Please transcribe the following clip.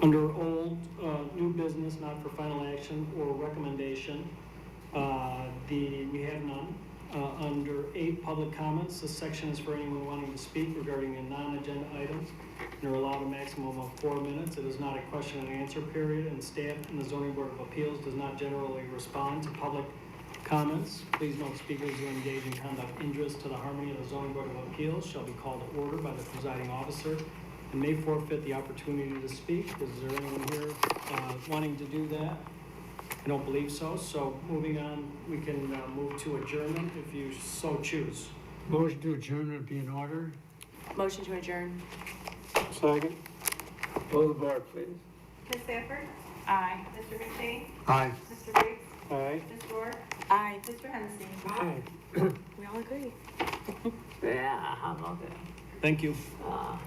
Under old, uh, new business, not for final action or recommendation, uh, the, we have none. Uh, Under eight, public comments, this section is for anyone wanting to speak regarding a non-agenda item. You're allowed a maximum of four minutes. It is not a question and answer period, and staff in the zoning board of appeals does not generally respond to public comments. Please note speakers who engage in conduct injurious to the harmony of the zoning board of appeals shall be called to order by the presiding officer and may forfeit the opportunity to speak. Is there anyone here uh, wanting to do that? I don't believe so, so moving on, we can uh, move to adjournment if you so choose. Motion to adjourn would be in order. Motion to adjourn. Second. Pull the board, please. Ms. Sanford? Aye. Mr. McShane? Aye. Mr. Riggs? Aye. Ms. Dorr? Aye. Mr. Hennessy? Aye. We all agree. Yeah, how about that? Thank you. Ah,